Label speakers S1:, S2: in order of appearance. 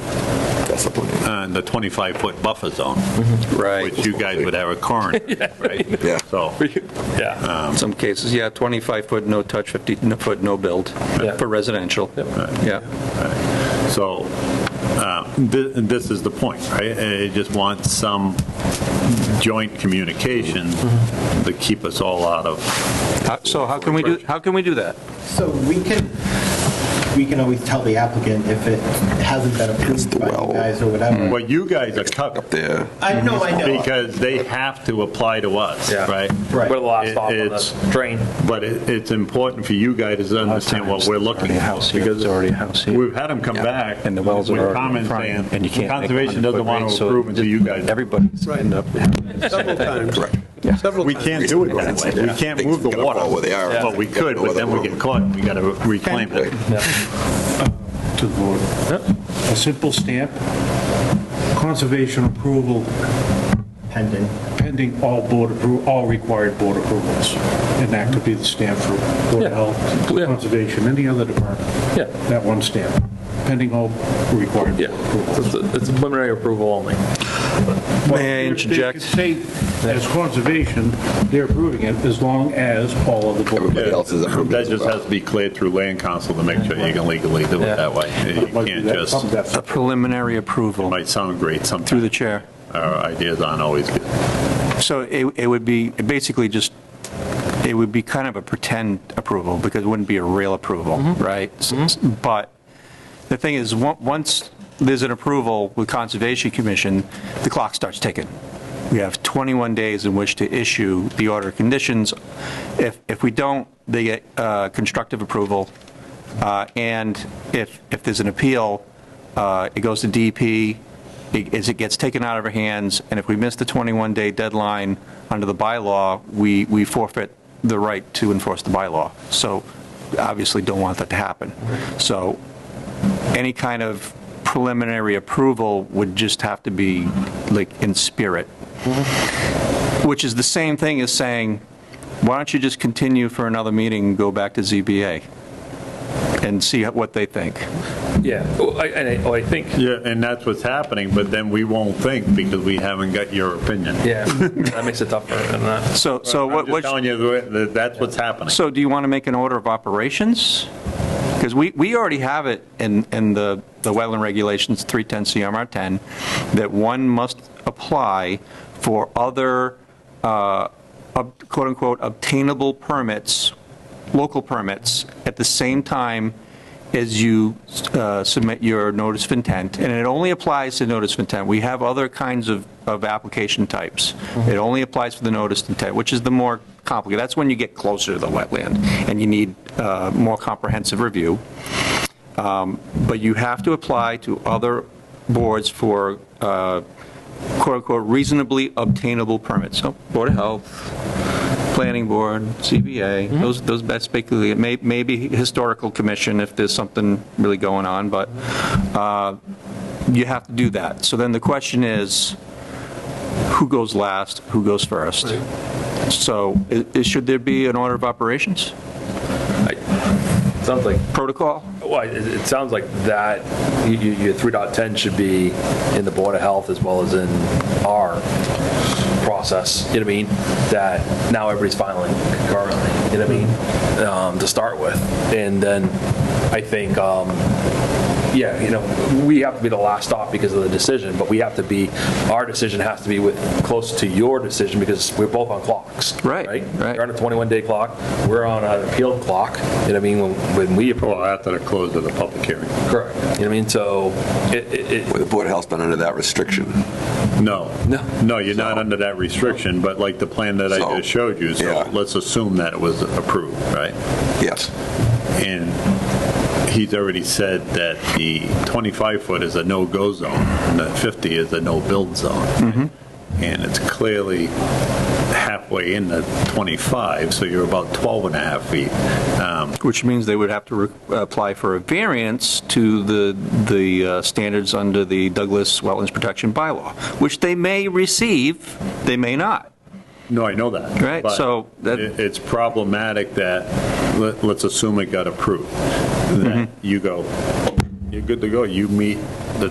S1: and uh, the 25-foot buffer zone,
S2: Mm-hmm.
S3: Right.
S1: which you guys would have a current, right?
S4: Yeah.
S1: So,
S5: Yeah,
S3: In some cases, yeah, 25-foot no-touch, 50-foot no-build
S5: Yeah.
S3: for residential. Yeah,
S1: so uh, thi- this is the point, right? Uh, It just wants some joint communication
S2: Mm-hmm.
S1: to keep us all out of,
S3: How- Uh, so how can we do, how can we do that?
S6: So we can, we can always tell the applicant if it hasn't been approved by
S4: well.
S6: you guys or whatever.
S1: well, you guys are covered,
S4: There.
S6: I know, I know.
S1: because they have to apply to us,
S5: Yeah.
S1: right?
S6: Right.
S5: we're the last
S1: It-
S5: stop on
S1: it's-
S5: the drain.
S1: But it- it's important for you guys to understand what we're looking
S2: Already a
S1: for.
S2: house here,
S1: because
S2: there's already a house here.
S1: We've had them come back.
S2: And the wells are
S1: with
S2: already in
S1: comments
S2: front,
S1: saying,
S2: and you can't make a
S1: Conservation doesn't
S2: 100-foot
S1: want
S2: range,
S1: to
S2: so
S1: approve until you guys.
S2: Everybody's end up
S7: Several times.
S4: Correct.
S7: Several
S1: We
S7: times.
S1: can't do it that way. We
S4: Yeah.
S1: can't move the
S4: Things gotta
S1: water.
S4: fall where they are.
S1: But we
S4: Yeah.
S1: could, but then we get caught, we got to reclaim it.
S8: to the board. A simple stamp, conservation approval
S6: Pending.
S8: pending all board appro, all required board approvals. And that could be the stamp for Board
S5: Yeah.
S8: of Health,
S5: Yeah.
S8: Conservation, any other department.
S5: Yeah.
S8: That one stamp, pending all required board
S5: Yeah,
S8: approvals.
S5: it's a- it's a preliminary approval only.
S3: May I
S8: Well, they-
S3: interject?
S8: They could say, as conservation, they're approving it as long as all of the board.
S4: Everybody else is approved
S1: That
S4: as
S1: just
S4: well.
S1: has to be cleared through land council to make sure you can legally do it
S5: Yeah.
S1: that way. You can't just, it
S3: A preliminary approval
S1: might sound great
S3: through the
S1: sometimes.
S3: chair.
S1: Our ideas aren't always good.
S3: So it it would be basically just, it would be kind of a pretend approval, because it wouldn't be a real approval,
S2: Mm-hmm.
S3: right? S- s- But the thing is, on- once there's an approval with Conservation Commission, the clock starts ticking. We have 21 days in which to issue the order of conditions. If if we don't, they get uh, constructive approval, uh, and if if there's an appeal, uh, it goes to DP, as it gets taken out of our hands, and if we miss the 21-day deadline under the bylaw, we, we forfeit the right to enforce the bylaw. So obviously don't want that to happen. So any kind of preliminary approval would just have to be like in spirit, which is the same thing as saying, why don't you just continue for another meeting, and go back to ZBA and see what they think?
S5: Yeah, oh, I- and I, oh, I think,
S1: Yeah, and that's what's happening, but then we won't think because we haven't got your opinion.
S5: yeah, that makes it tougher than that.
S3: So, so
S1: I'm
S3: what?
S1: just
S3: what-
S1: telling you that- that that's what's happening.
S3: So do you want to make an order of operations? Because we, we already have it in, in the, the wetland regulations, 310 CMR 10, that one must apply for other uh, ob- quote-unquote obtainable permits, local permits, at the same time as you uh, submit your notice of intent. And it only applies to notice of intent. We have other kinds of, of application types. It only applies for the notice of intent, which is the more complicated. That's when you get closer to the wetland and you need uh, more comprehensive review. Um, But you have to apply to other boards for uh, quote-unquote reasonably obtainable permits. So Board of Health, Planning Board, CBA, those, those best basically, it may- maybe Historical Commission if there's something really going on, but uh, you have to do that. So then the question is, who goes last, who goes first? So i- i- should there be an order of operations
S5: Sounds like,
S3: protocol?
S5: well, it, it sounds like that, you, you, your 3.10 should be in the Board of Health as well as in our process, you know what I mean? That now everybody's filing concurrently, you know
S3: Mm-hmm.
S5: what I mean? Um, to start with. And then I think, um, yeah, you know, we have to be the last stop because of the decision, but we have to be, our decision has to be with, close to your decision because we're both on clocks.
S3: Right, right.
S5: You're on a 21-day clock, we're on an appeal clock, you know what I mean, when when we approve.
S1: Well, after the close of the public hearing.
S5: Correct. You know what I mean? So it, it, it-
S4: Well, The Board of Health's been under that restriction.
S1: No.
S5: No.
S1: No, you're not under that restriction, but like the plan that I
S4: So-
S1: just showed you,
S4: Yeah.
S1: so let's assume that it was approved, right?
S4: Yes.
S1: And he's already said that the 25-foot is a no-go zone, and the 50 is a no-build
S4: Mm-hmm.
S1: zone. And it's clearly halfway in the 25, so you're about 12 and a half feet. Um,
S3: Which means they would have to re- apply for a variance to the, the uh, standards under the Douglas Wetlands Protection Bylaw, which they may receive, they may not.
S1: No, I know that.
S3: Right,
S1: But
S3: so that-
S1: it- It's problematic that,
S3: Mm-hmm.
S1: let- let's assume it got approved, that you go, you're good to go, you meet